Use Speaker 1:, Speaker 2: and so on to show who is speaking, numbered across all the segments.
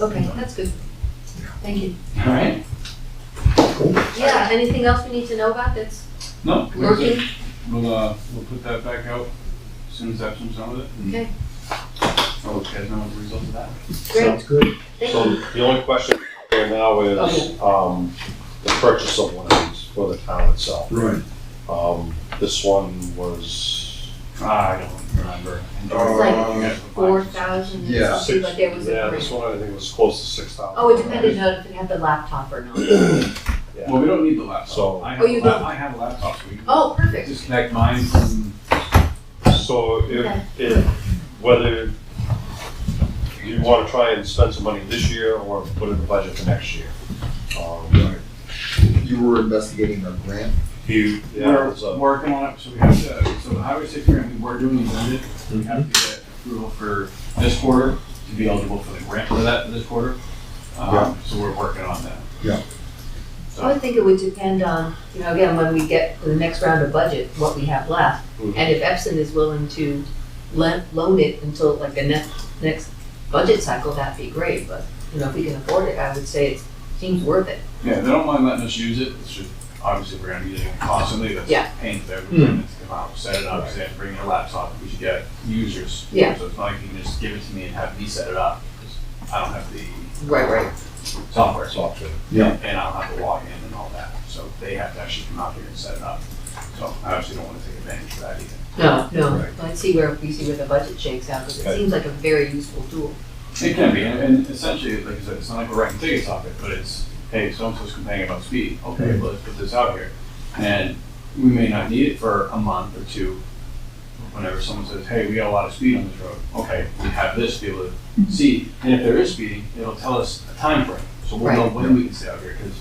Speaker 1: Okay, that's good. Thank you.
Speaker 2: All right?
Speaker 1: Yeah, anything else we need to know about that's
Speaker 2: No? we're good.
Speaker 1: working?
Speaker 2: We'll, uh, we'll put that back out as soon as Epsom's done with it. and
Speaker 1: Okay,
Speaker 2: I'll let you guys know what the result of that.
Speaker 1: great,
Speaker 3: Sounds good.
Speaker 1: thank
Speaker 4: So
Speaker 1: you.
Speaker 4: the only question right now is, um, the purchase of one of these for the town itself.
Speaker 3: Right.
Speaker 4: Um, this one was, Ah, I don't remember.
Speaker 1: like
Speaker 2: You guys will find-
Speaker 1: Four thousand,
Speaker 3: Yeah.
Speaker 1: it seemed like there was
Speaker 4: Yeah,
Speaker 1: a
Speaker 4: this
Speaker 1: break.
Speaker 4: one I think was close to six thousand.
Speaker 1: Oh, it depended on if it had the laptop or not.
Speaker 2: Well, we don't need the laptop.
Speaker 4: So-
Speaker 2: I
Speaker 1: Oh,
Speaker 2: have,
Speaker 1: you
Speaker 2: a lap-
Speaker 1: don't?
Speaker 2: I have a laptop, so we can
Speaker 1: Oh, perfect.
Speaker 2: disconnect mine from,
Speaker 4: So
Speaker 1: Okay.
Speaker 4: if, if, whether you wanna try and spend some money this year or put it in the budget for next year. Um,
Speaker 3: You were investigating a grant?
Speaker 4: You, yeah, it was
Speaker 2: we're
Speaker 4: a-
Speaker 2: working on it, so we have to, so the highway safety grant, we were doing the budget. We have to get approval for this quarter to be eligible for the grant for that this quarter.
Speaker 3: Yeah.
Speaker 2: Um, so we're working on that.
Speaker 1: I would think it would depend on, you know, again, when we get to the next round of budget, what we have left.
Speaker 4: Mhm.
Speaker 1: And if Epson is willing to lend, loan it until like the next, next budget cycle, that'd be great, but, you know, if we can afford it, I would say it seems worth it.
Speaker 2: Yeah, they don't mind letting us use it, it's just, obviously, we're gonna be using it constantly, that's
Speaker 1: Yeah.
Speaker 2: a pain for everyone to come out, set it up, say, bring your laptop, we should get users.
Speaker 1: Yeah.
Speaker 2: So it's not like you can just give it to me and have me set it up, 'cause I don't have the
Speaker 1: Right, right.
Speaker 2: software,
Speaker 4: software.
Speaker 3: Yeah.
Speaker 2: and I don't have the login and all that, so they have to actually come out here and set it up. So I obviously don't wanna take advantage of that either.
Speaker 1: No, no,
Speaker 4: Right.
Speaker 1: let's see where, we see where the budget shakes out, because it
Speaker 4: Okay.
Speaker 1: seems like a very useful tool.
Speaker 2: It can be, and- and essentially, like I said, it's not like we're writing tickets off it, but it's, hey, so-and-so's complaining about speed, okay, well, let's put this out here. And we may not need it for a month or two, whenever someone says, hey, we got a lot of speed on this road, okay, we have this, to be able to see, and if there is speeding, it'll tell us a time frame, so we'll know
Speaker 1: Right.
Speaker 2: when we can stay out here, because,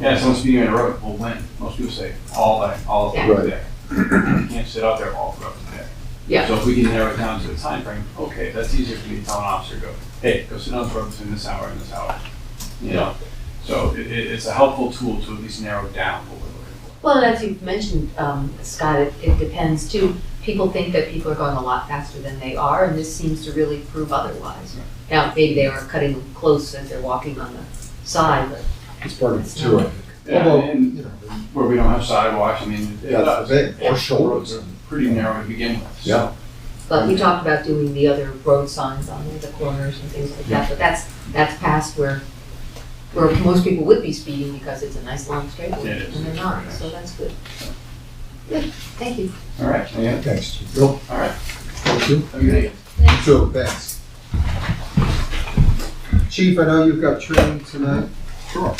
Speaker 2: yeah, someone's speeding on the road, well, when, most people say, all day, all
Speaker 1: Yeah.
Speaker 2: throughout the day. You can't sit out there all throughout the day.
Speaker 1: Yeah.
Speaker 2: So if we can narrow it down to a time frame, okay, that's easier for me to tell an officer, go, hey, go sit on the road between this hour and this hour. You know, so it, it, it's a helpful tool to at least narrow down what we're looking for.
Speaker 1: Well, and as you've mentioned, um, Scott, it, it depends too. People think that people are going a lot faster than they are, and this seems to really prove otherwise. Now, maybe they are cutting close as they're walking on the side, but
Speaker 3: It's part of it
Speaker 1: It's
Speaker 3: too.
Speaker 1: not-
Speaker 3: I think.
Speaker 2: Yeah,
Speaker 3: Although,
Speaker 2: and
Speaker 3: you know,
Speaker 2: where we don't have sidewalks, I mean, it
Speaker 3: that's
Speaker 2: does.
Speaker 3: the thing, or
Speaker 2: The roads
Speaker 3: shoulders.
Speaker 2: are pretty narrow to begin with. so-
Speaker 3: Yeah.
Speaker 1: but we talked about doing the other road signs on the corners and things like that, but that's, that's past where, where most people would be speeding because it's a nice long straight
Speaker 2: Yeah,
Speaker 1: away,
Speaker 2: it is.
Speaker 1: and they're not, so that's good. Good, thank you.
Speaker 2: All right, yeah,
Speaker 3: Thanks. Bill,
Speaker 2: all right.
Speaker 3: thank you.
Speaker 2: Have a good day.
Speaker 3: So, thanks. Chief, I know you've got training tonight. Sure.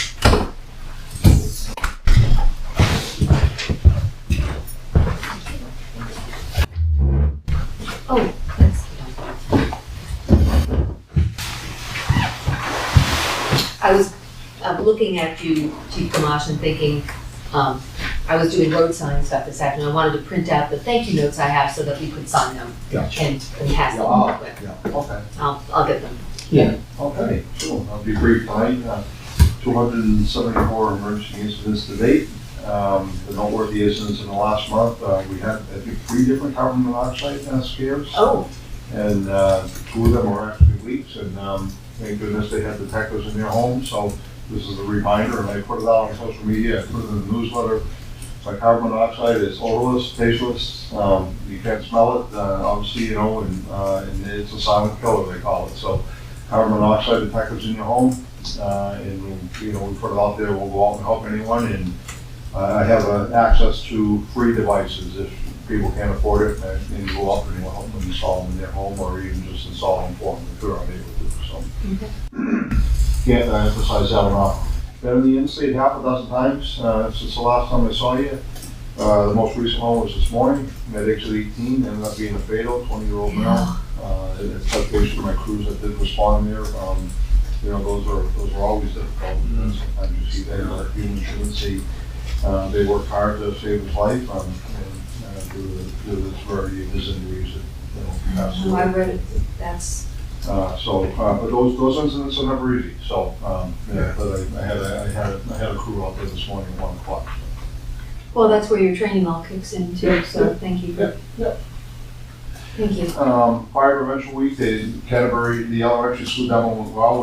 Speaker 1: Oh, that's. I was uh, looking at you, Chief Gamache, and thinking, um, I was doing road sign stuff this afternoon. I wanted to print out the thank you notes I have so that we could sign them
Speaker 3: Gotcha.
Speaker 1: and and pass them
Speaker 3: Yeah.
Speaker 1: on. But
Speaker 3: Yeah, okay.
Speaker 1: I'll, I'll get them.
Speaker 5: Okay, sure, I'll be brief, tonight. uh, 274 emergency incidents to date. Um, The noteworthy incidents in the last month, uh, we had, I think, three different carbon monoxide uh, scares,
Speaker 1: Oh,
Speaker 5: and uh, two of them were actually leaks, and um, thank goodness they had detectives in their home, so this is a reminder, and I put it out on social media, I put it in the newsletter. My carbon monoxide is odorless, tasteless, um, you can't smell it, uh, obviously, you know, and uh, and it's a silent killer, they call it, so carbon monoxide detectors in your home, uh, and, we'll, you know, we put it out there, we'll go out and help anyone, and uh, I have uh, access to free devices if people can't afford it, and and go out and we'll help them install them in their home, or even just install them for them if they're unable to, so. Can't emphasize that enough. Been in the in-state half a dozen times, uh, since the last time I saw you. Uh, the most recent one was this morning, at exit eighteen, ended up being a fatal, twenty-year-old male. Uh, and it's touch base with my crews that did respond there. Um, you know, those are, those are always difficult. you know, Sometimes you see that, uh, human truancy. Uh, they worked hard to save his life, um, and, uh, due to, due to the severity of his injuries, it, you know, passed
Speaker 1: oh,
Speaker 5: away.
Speaker 1: I read it. That's,
Speaker 5: Uh, so, uh, but those, those incidents are never easy, so, um, yeah, but I, I had, a- I had, a- I had a crew out there this morning at one o'clock.
Speaker 1: well, that's where your training all kicks in too, so thank you. for-
Speaker 5: yeah.
Speaker 1: Thank you.
Speaker 5: Um, fire prevention week, the Canterbury, the elementary school demo went well,